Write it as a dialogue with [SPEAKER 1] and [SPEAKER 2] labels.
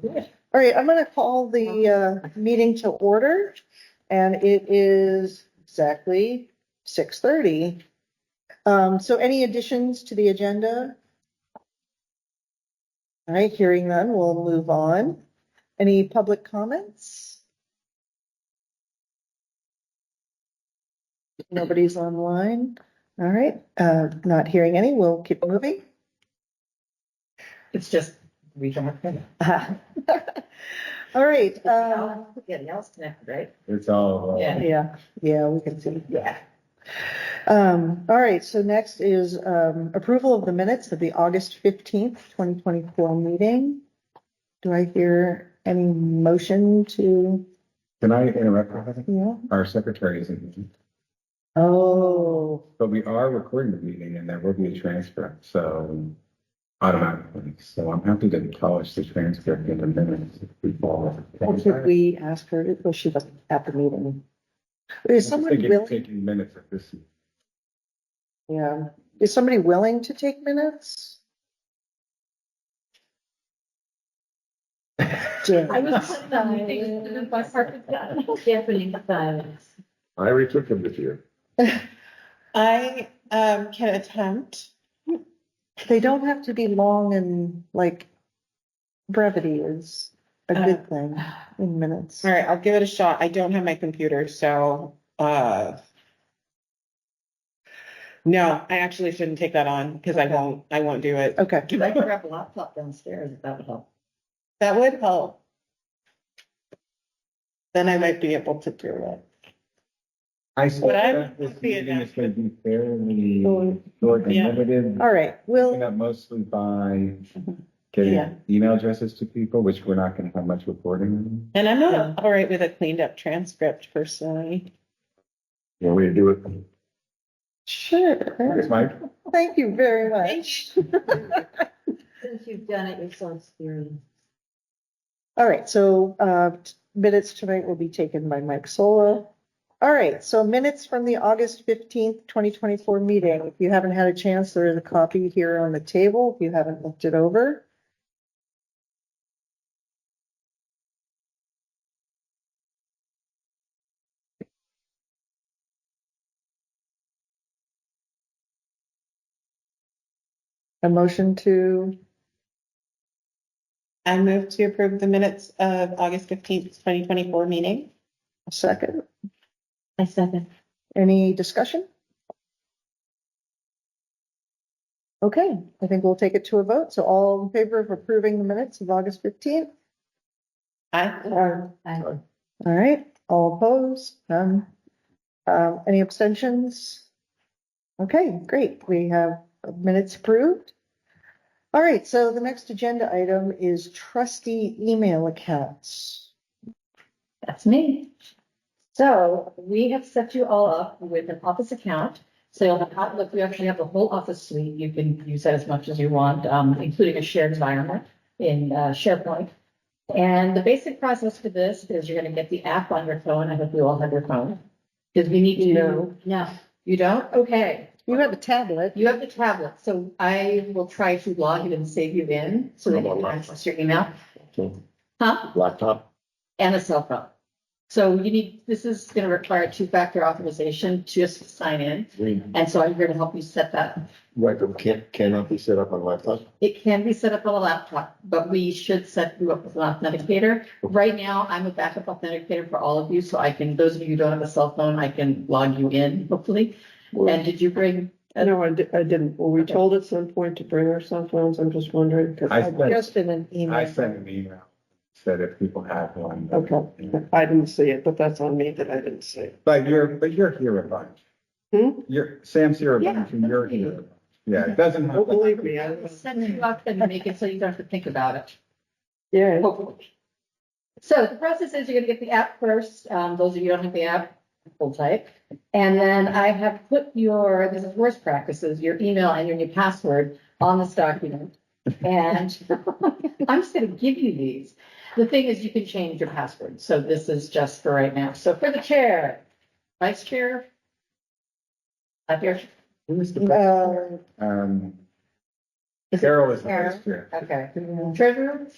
[SPEAKER 1] All right, I'm gonna call the uh meeting to order and it is exactly six thirty. Um, so any additions to the agenda? All right, hearing none, we'll move on. Any public comments? Nobody's online. All right, uh, not hearing any, we'll keep moving.
[SPEAKER 2] It's just, we don't have to.
[SPEAKER 1] All right, um,
[SPEAKER 2] Yeah, the L's connected, right?
[SPEAKER 3] It's all. uh,
[SPEAKER 2] Yeah.
[SPEAKER 1] Yeah, yeah, we can see.
[SPEAKER 2] Yeah.
[SPEAKER 1] Um, all right, so next is, um, approval of the minutes of the August fifteenth, twenty twenty-four meeting. Do I hear any motion to,
[SPEAKER 3] Can I interrupt? for a second?
[SPEAKER 1] yeah?
[SPEAKER 3] Our secretary isn't,
[SPEAKER 1] Oh,
[SPEAKER 3] but we are recording the meeting and there will be a transcript, so automatically. So I'm happy to polish the transcript in a minute before.
[SPEAKER 1] well, Oh, should we ask her, well, she wasn't at the meeting. Is someone willing,
[SPEAKER 3] Taking minutes of this.
[SPEAKER 1] yeah, is somebody willing to take minutes? Jen.
[SPEAKER 2] I was putting the meetings in my parking lot. Definitely silence.
[SPEAKER 3] I retook them this year.
[SPEAKER 4] I um can attempt.
[SPEAKER 1] They don't have to be long and like brevity is a good thing in minutes.
[SPEAKER 4] All right, I'll give it a shot. I don't have my computer, so uh no, I actually shouldn't take that on because I
[SPEAKER 1] Okay.
[SPEAKER 4] won't I won't do it.
[SPEAKER 1] Okay,
[SPEAKER 2] Cause I could grab a laptop downstairs if that would help.
[SPEAKER 4] That would help. Then I might be able to do it.
[SPEAKER 3] I saw
[SPEAKER 4] But I
[SPEAKER 3] that
[SPEAKER 4] would
[SPEAKER 3] this
[SPEAKER 4] be
[SPEAKER 3] meeting is
[SPEAKER 4] adapted.
[SPEAKER 3] going to be fairly
[SPEAKER 1] Oh,
[SPEAKER 3] short and
[SPEAKER 4] yeah.
[SPEAKER 3] limited.
[SPEAKER 1] all right,
[SPEAKER 3] Picking
[SPEAKER 1] we'll, Mm-hmm.
[SPEAKER 3] up mostly by
[SPEAKER 4] Yeah.
[SPEAKER 3] getting email addresses to people, which we're not going to have much recording.
[SPEAKER 4] And I'm not all right with a cleaned up transcript personally.
[SPEAKER 3] Yeah, we do it.
[SPEAKER 1] sure,
[SPEAKER 3] Thanks, Mike.
[SPEAKER 1] thank you very much.
[SPEAKER 2] Since you've done it, you're so experienced.
[SPEAKER 1] All right, so uh minutes tonight will be taken by Mike Sola. All right, so minutes from the August fifteenth, twenty twenty-four meeting. If you haven't had a chance, there is a copy here on the table if you haven't looked it over. A motion to,
[SPEAKER 4] I move to approve the minutes of August fifteenth, twenty twenty four meeting.
[SPEAKER 1] a second?
[SPEAKER 2] I second.
[SPEAKER 1] Any discussion? Okay, I think we'll take it to a vote. So all in favor of approving the minutes of August fifteenth?
[SPEAKER 4] Aye.
[SPEAKER 2] I-
[SPEAKER 1] All right, all opposed, none. Um, any abstentions? Okay, great. We have minutes approved. All right, so the next agenda item is trustee email accounts.
[SPEAKER 2] That's me. So we have set you all up with an office account. So you'll have Outlook, we actually have the whole office suite. You can use that as much as you want, um, including a shared environment in uh, SharePoint. And the basic process for this is you're gonna get the app on your phone. I hope you all have your phone. Because we need to know. No.
[SPEAKER 4] You don't?
[SPEAKER 2] Okay.
[SPEAKER 1] You have a tablet.
[SPEAKER 2] You have the tablet, so I will try to log in and save you in so that you can access your email. Huh?
[SPEAKER 3] Laptop.
[SPEAKER 2] and a cell phone. So you need, this is going to require two-factor authorization just to sign in.
[SPEAKER 5] We,
[SPEAKER 2] And so I'm here to help you set that. up.
[SPEAKER 5] right, but can't, cannot be set up on laptop.
[SPEAKER 2] It can be set up on a laptop, but we should set you up with an authenticator. Right now, I'm a backup authenticator for all of you, so I can, those of you who don't have a cell phone, I can log you in hopefully. And did you bring,
[SPEAKER 6] No, I di- I didn't. Were we told at some point to bring our cell phones? I'm just wondering. 'cause
[SPEAKER 3] I sent,
[SPEAKER 1] Just in an email.
[SPEAKER 3] I sent an email, said if people have one.
[SPEAKER 6] Okay. I didn't see it, but that's on me that I didn't see it.
[SPEAKER 3] But you're, but you're here a bunch.
[SPEAKER 6] Hmm?
[SPEAKER 3] You're, Sam's here a
[SPEAKER 2] Yeah,
[SPEAKER 3] bunch and you're
[SPEAKER 2] that's me.
[SPEAKER 3] here. a bunch. Yeah, it doesn't.
[SPEAKER 6] Don't
[SPEAKER 3] have-
[SPEAKER 6] believe me. I-
[SPEAKER 2] set you up and make it so you don't have to think about it.
[SPEAKER 6] Yeah,
[SPEAKER 2] hopefully. So the process is you're gonna get the app first, um, those of you who don't have the app, full type. And then I have put your, this is worst practices, your email and your new password on this document. And I'm just gonna give you these. The thing is, you can change your password, so this is just for right now. So for the chair, vice chair. Up here,
[SPEAKER 3] Who's the-
[SPEAKER 1] Uh,
[SPEAKER 3] Um,
[SPEAKER 2] Is it
[SPEAKER 3] Carol is.
[SPEAKER 2] Carol?
[SPEAKER 3] the vice chair.
[SPEAKER 2] okay. Treasurer,